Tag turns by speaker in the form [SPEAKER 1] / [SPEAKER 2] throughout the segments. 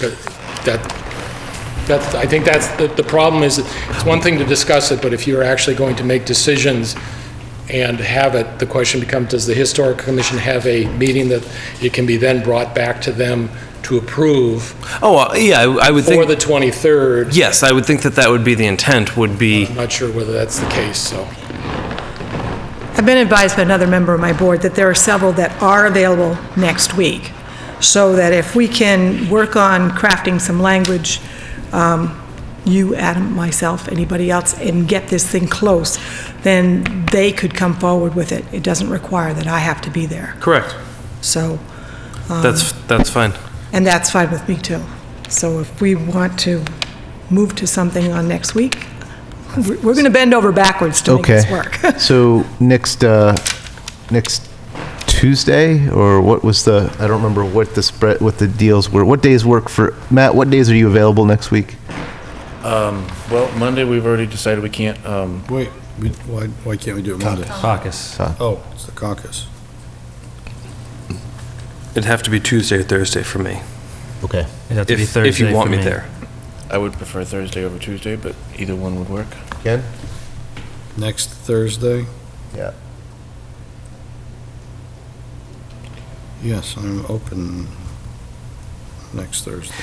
[SPEAKER 1] But That, that's, I think that's, the, the problem is, it's one thing to discuss it, but if you're actually going to make decisions and have it, the question becomes, does the Historic Commission have a meeting that it can be then brought back to them to approve
[SPEAKER 2] Oh, uh, yeah, I I would
[SPEAKER 1] for the
[SPEAKER 2] think,
[SPEAKER 1] 23rd?
[SPEAKER 2] yes, I would think that that would be the intent, would be,
[SPEAKER 1] I'm not sure whether that's the case, so.
[SPEAKER 3] I've been advised by another member of my board that there are several that are available next week, so that if we can work on crafting some language, um, you, Adam, myself, anybody else, and get this thing close, then they could come forward with it. It doesn't require that I have to be there.
[SPEAKER 2] correct,
[SPEAKER 3] So,
[SPEAKER 2] Um, that's, that's fine.
[SPEAKER 3] and that's fine with me, too. So if we want to move to something on next week, we're going to bend over backwards to make this
[SPEAKER 4] Okay.
[SPEAKER 3] work.
[SPEAKER 4] So next, uh, next Tuesday, or what was the, I don't remember what the spread, what the deals were. What days work for, Matt, what days are you available next week?
[SPEAKER 5] Well, Monday, we've already decided we can't, um,
[SPEAKER 6] Wait, we- why, why can't we do it Monday?
[SPEAKER 7] Caucus.
[SPEAKER 6] Oh, it's the caucus.
[SPEAKER 2] It'd have to be Tuesday or Thursday for me,
[SPEAKER 4] Okay.
[SPEAKER 7] It'd have to be
[SPEAKER 2] if,
[SPEAKER 7] Thursday
[SPEAKER 2] if you want
[SPEAKER 7] for
[SPEAKER 2] me there.
[SPEAKER 5] I would prefer Thursday over Tuesday, but either one would work.
[SPEAKER 4] Ken?
[SPEAKER 6] Next Thursday?
[SPEAKER 4] Yeah.
[SPEAKER 6] Yes, I'm open next Thursday.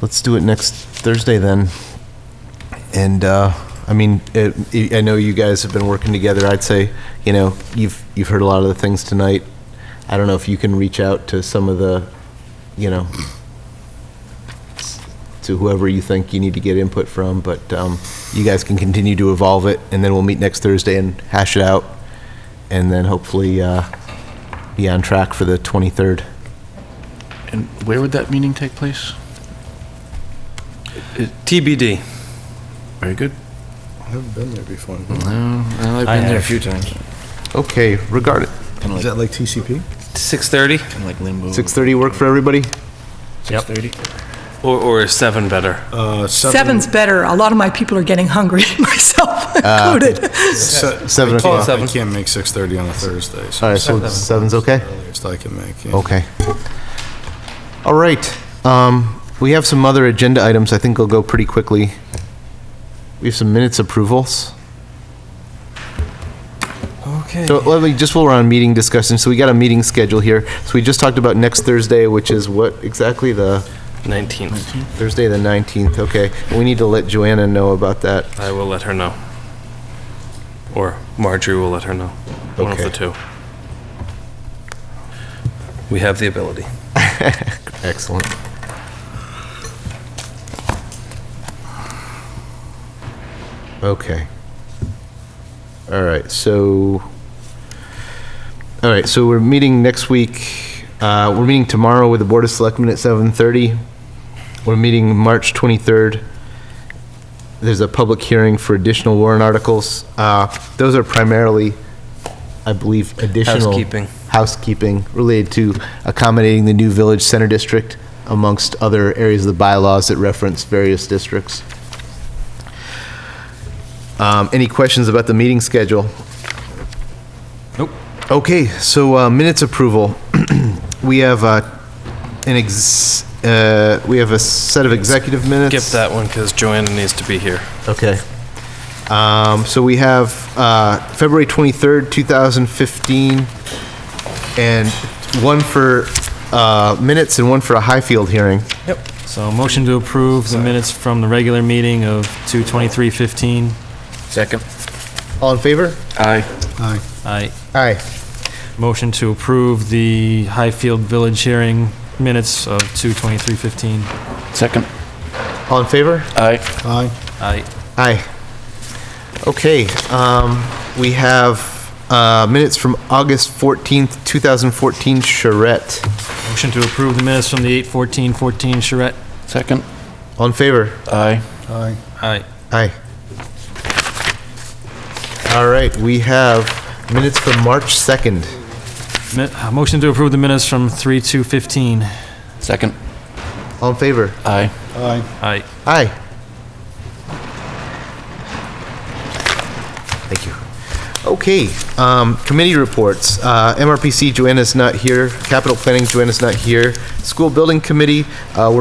[SPEAKER 4] Let's do it next Thursday then. And, uh, I mean, it, I know you guys have been working together. I'd say, you know, you've, you've heard a lot of the things tonight. I don't know if you can reach out to some of the, you know, to whoever you think you need to get input from, but, um, you guys can continue to evolve it and then we'll meet next Thursday and hash it out. And then hopefully, uh, be on track for the 23rd.
[SPEAKER 5] And where would that meeting take place?
[SPEAKER 2] TBD.
[SPEAKER 5] Very good.
[SPEAKER 6] I haven't been there before.
[SPEAKER 5] I've been there
[SPEAKER 7] I
[SPEAKER 5] a
[SPEAKER 7] have.
[SPEAKER 5] few times.
[SPEAKER 4] Okay, regard it.
[SPEAKER 5] Kind of like,
[SPEAKER 6] Is that like TCP?
[SPEAKER 2] 6:30
[SPEAKER 5] kind of like limbo.
[SPEAKER 4] 6:30 work for everybody?
[SPEAKER 7] Yep.
[SPEAKER 5] 6:30?
[SPEAKER 2] or, or is 7 better?
[SPEAKER 6] Uh,
[SPEAKER 3] Seven's better. A lot of my people are getting hungry, myself included.
[SPEAKER 6] se-
[SPEAKER 4] seven
[SPEAKER 6] I
[SPEAKER 4] o'clock.
[SPEAKER 2] Seven.
[SPEAKER 6] can't- I can't make 6:30 on a Thursday, so
[SPEAKER 4] All right, so seven's okay?
[SPEAKER 6] earliest I can make. yeah.
[SPEAKER 4] Okay. All right, um, we have some other agenda items, I think they'll go pretty quickly. We have some minutes approvals.
[SPEAKER 2] Okay.
[SPEAKER 4] So let me, just while we're on meeting discussion, so we got a meeting schedule here. So we just talked about next Thursday, which is what exactly, the
[SPEAKER 2] 19th.
[SPEAKER 4] Thursday, the 19th, okay. We need to let Joanna know about that.
[SPEAKER 2] I will let her know. Or Marjorie will let her know. One of
[SPEAKER 4] Okay.
[SPEAKER 2] the two. We have the ability.
[SPEAKER 4] Excellent. Okay. All right, so, all right, so we're meeting next week, uh, we're meeting tomorrow with the Board of Selectmen at 7:30. We're meeting March 23rd. There's a public hearing for additional warrant articles. Uh, Those are primarily, I believe, additional.
[SPEAKER 2] Housekeeping.
[SPEAKER 4] Housekeeping related to accommodating the new Village Center District amongst other areas of the bylaws that reference various districts. Um, Any questions about the meeting schedule? Nope. Okay, so uh, minutes approval. We have uh, an ex, uh, we have a set of executive minutes.
[SPEAKER 2] Skip that one because Joanna needs to be here.
[SPEAKER 4] Okay. Um, So we have uh, February 23rd, 2015, and one for uh, minutes and one for a Highfield hearing.
[SPEAKER 7] Yep. So motion to approve the minutes from the regular meeting of 2:23:15.
[SPEAKER 5] Second.
[SPEAKER 4] All in favor?
[SPEAKER 5] Aye.
[SPEAKER 6] Aye.
[SPEAKER 7] Aye.
[SPEAKER 4] Aye.
[SPEAKER 7] Motion to approve the Highfield Village hearing minutes of 2:23:15.
[SPEAKER 5] Second.
[SPEAKER 4] All in favor?
[SPEAKER 5] Aye.
[SPEAKER 6] Aye.
[SPEAKER 7] Aye.
[SPEAKER 4] Aye. Okay, um, we have uh, minutes from August 14th, 2014, charrette.
[SPEAKER 7] Motion to approve the minutes from the 8:14:14 charrette.
[SPEAKER 5] Second.
[SPEAKER 4] All in favor?
[SPEAKER 5] Aye.
[SPEAKER 6] Aye.
[SPEAKER 7] Aye.
[SPEAKER 4] Aye. All right, we have minutes from March 2nd.
[SPEAKER 7] Mi- uh, Motion to approve the minutes from 3:2:15.
[SPEAKER 5] Second.
[SPEAKER 4] All in favor?
[SPEAKER 5] Aye.
[SPEAKER 6] Aye.
[SPEAKER 7] Aye.
[SPEAKER 4] Aye. Thank you. Okay, um, committee reports. Uh, MRPC, Joanna's not here. Capital Planning, Joanna's not here. School Building Committee, uh, we're